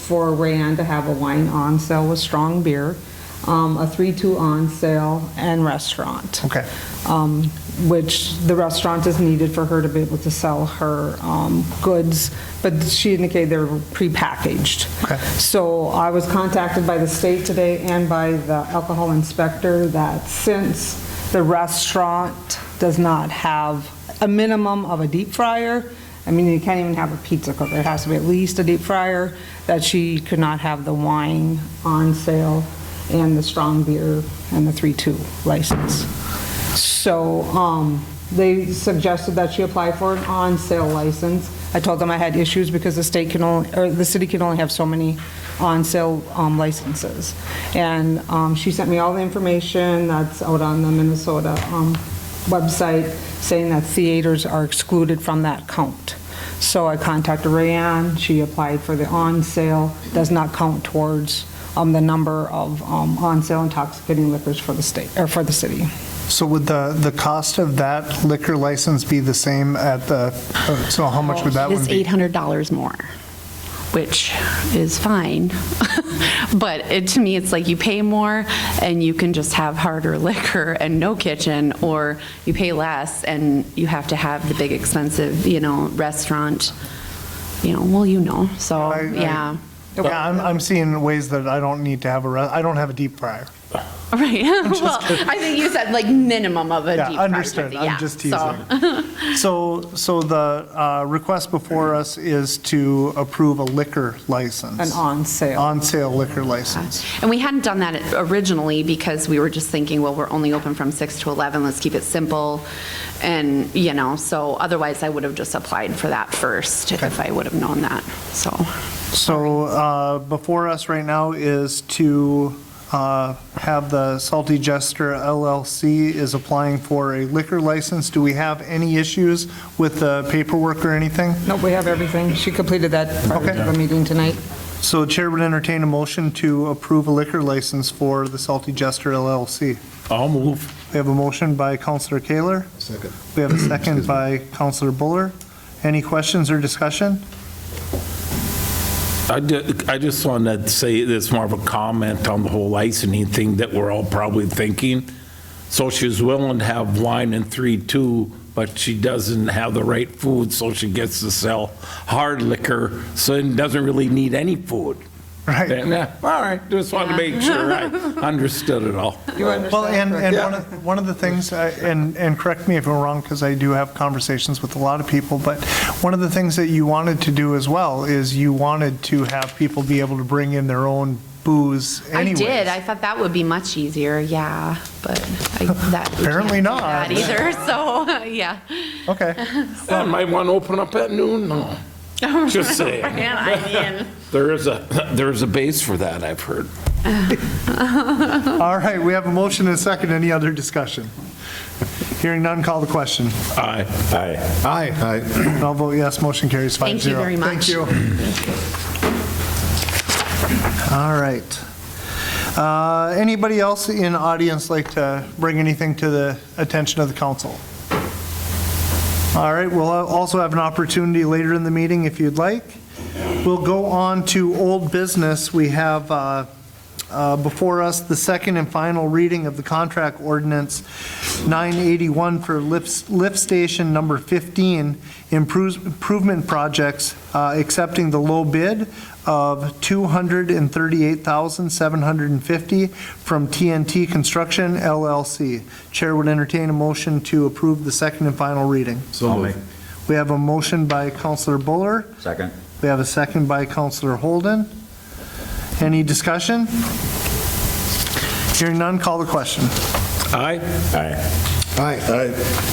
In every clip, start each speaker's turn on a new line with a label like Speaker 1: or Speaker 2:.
Speaker 1: for Rayanne to have a wine on sale with strong beer, um, a 3-2 on sale, and restaurant.
Speaker 2: Okay.
Speaker 1: Um, Which the restaurant is needed for her to be able to sell her um, goods, but she indicated they're prepackaged.
Speaker 2: Okay.
Speaker 1: So I was contacted by the state today and by the alcohol inspector that since the restaurant does not have a minimum of a deep fryer, I mean, you can't even have a pizza cooker, it has to be at least a deep fryer, that she could not have the wine on sale and the strong beer and the 3-2 license. So um, they suggested that she apply for an on-sale license. I told them I had issues because the state can only, or the city can only have so many on-sale um, licenses. And um, she sent me all the information that's out on the Minnesota um, website saying that theaters are excluded from that count. So I contacted Rayanne, she applied for the on-sale, does not count towards um, the number of um, on-sale intoxicating liquors for the state, or for the city.
Speaker 2: So would the, the cost of that liquor license be the same at the, uh, so how much would that
Speaker 3: It
Speaker 2: one
Speaker 3: is
Speaker 2: be?
Speaker 3: $800 more, which is fine. But it, to me, it's like you pay more and you can just have harder liquor and no kitchen, or you pay less and you have to have the big expensive, you know, restaurant, you know, well, you know, so,
Speaker 2: I- I-
Speaker 3: yeah.
Speaker 2: Yeah, I'm, I'm seeing ways that I don't need to have a, re- I don't have a deep fryer.
Speaker 3: Right, well, I think you said like minimum of a deep
Speaker 2: Yeah,
Speaker 3: fried.
Speaker 2: understood, I'm just teasing. So, so the uh, request before us is to approve a liquor license.
Speaker 1: An on-sale.
Speaker 2: On-sale liquor license.
Speaker 3: And we hadn't done that originally because we were just thinking, well, we're only open from 6 to 11, let's keep it simple. And, you know, so otherwise I would have just applied for that first if I would have known that, so.
Speaker 2: So uh, before us right now is to uh, have the Salty Jester LLC is applying for a liquor license. Do we have any issues with the paperwork or anything?
Speaker 1: Nope, we have everything. She completed that prior
Speaker 2: Okay.
Speaker 1: to the meeting tonight.
Speaker 2: So the Chair would entertain a motion to approve a liquor license for the Salty Jester LLC.
Speaker 4: I'll move.
Speaker 2: We have a motion by Counselor Kaler.
Speaker 4: Second.
Speaker 2: We have a second by Counselor Buller. Any questions or discussion?
Speaker 4: I just, I just wanted to say this more of a comment on the whole licensing thing that we're all probably thinking. So she was willing to have wine and three, two, but she doesn't have the right food, so she gets to sell hard liquor, so it doesn't really need any food.
Speaker 2: Right.
Speaker 4: And, uh, All right, just wanted to make sure I understood it all.
Speaker 1: You
Speaker 2: Well,
Speaker 1: understand?
Speaker 2: and, and
Speaker 1: correct?
Speaker 2: one of, one of the things, uh, and, and correct me if I'm wrong, because I do have conversations with a lot of people, but one of the things that you wanted to do as well is you wanted to have people be able to bring in their own booze
Speaker 3: I
Speaker 2: anyways.
Speaker 3: did, I thought that would be much easier, yeah, but I, that. we can't
Speaker 2: Apparently
Speaker 3: do
Speaker 2: not.
Speaker 3: That either, so, yeah.
Speaker 2: Okay,
Speaker 4: I might want to open up at noon, no. Just saying.
Speaker 3: Yeah, I mean.
Speaker 4: There is a, there is a base for that, I've heard.
Speaker 2: all right, we have a motion and a second, any other discussion? Hearing none, call the question.
Speaker 4: Aye. Aye.
Speaker 2: Aye. Aye. I'll vote yes, motion carries five
Speaker 3: Thank you
Speaker 2: zero.
Speaker 3: very much.
Speaker 2: Thank you. All right. Uh, Anybody else in audience like to bring anything to the attention of the council? All right, we'll also have an opportunity later in the meeting if you'd like. We'll go on to old business. We have uh, uh, before us the second and final reading of the contract ordinance 981 for lift lift station number 15 improves- improvement projects, uh, accepting the low bid of 238750 from TNT Construction LLC. Chair would entertain a motion to approve the second and final reading.
Speaker 5: So
Speaker 2: We have a motion by Counselor Buller.
Speaker 5: Second.
Speaker 2: We have a second by Counselor Holden. Any discussion? Hearing none, call the question.
Speaker 4: Aye? Aye.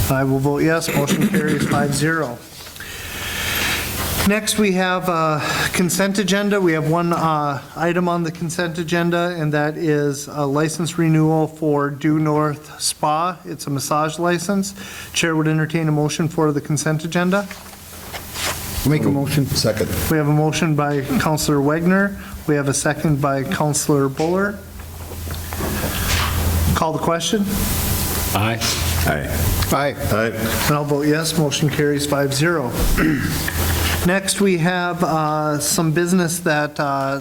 Speaker 2: I will vote yes, motion carries 5-0. Next, we have uh, consent agenda. We have one uh, item on the consent agenda, and that is a license renewal for Due North Spa. It's a massage license. Chair would entertain a motion for the consent agenda.
Speaker 5: Make a motion. Second.
Speaker 2: We have a motion by Counselor Wagner. We have a second by Counselor Buller. Call the question,
Speaker 4: Aye.
Speaker 5: Aye. Aye.
Speaker 2: and I'll vote yes. Motion carries 5-0. Next, we have uh, some business that uh,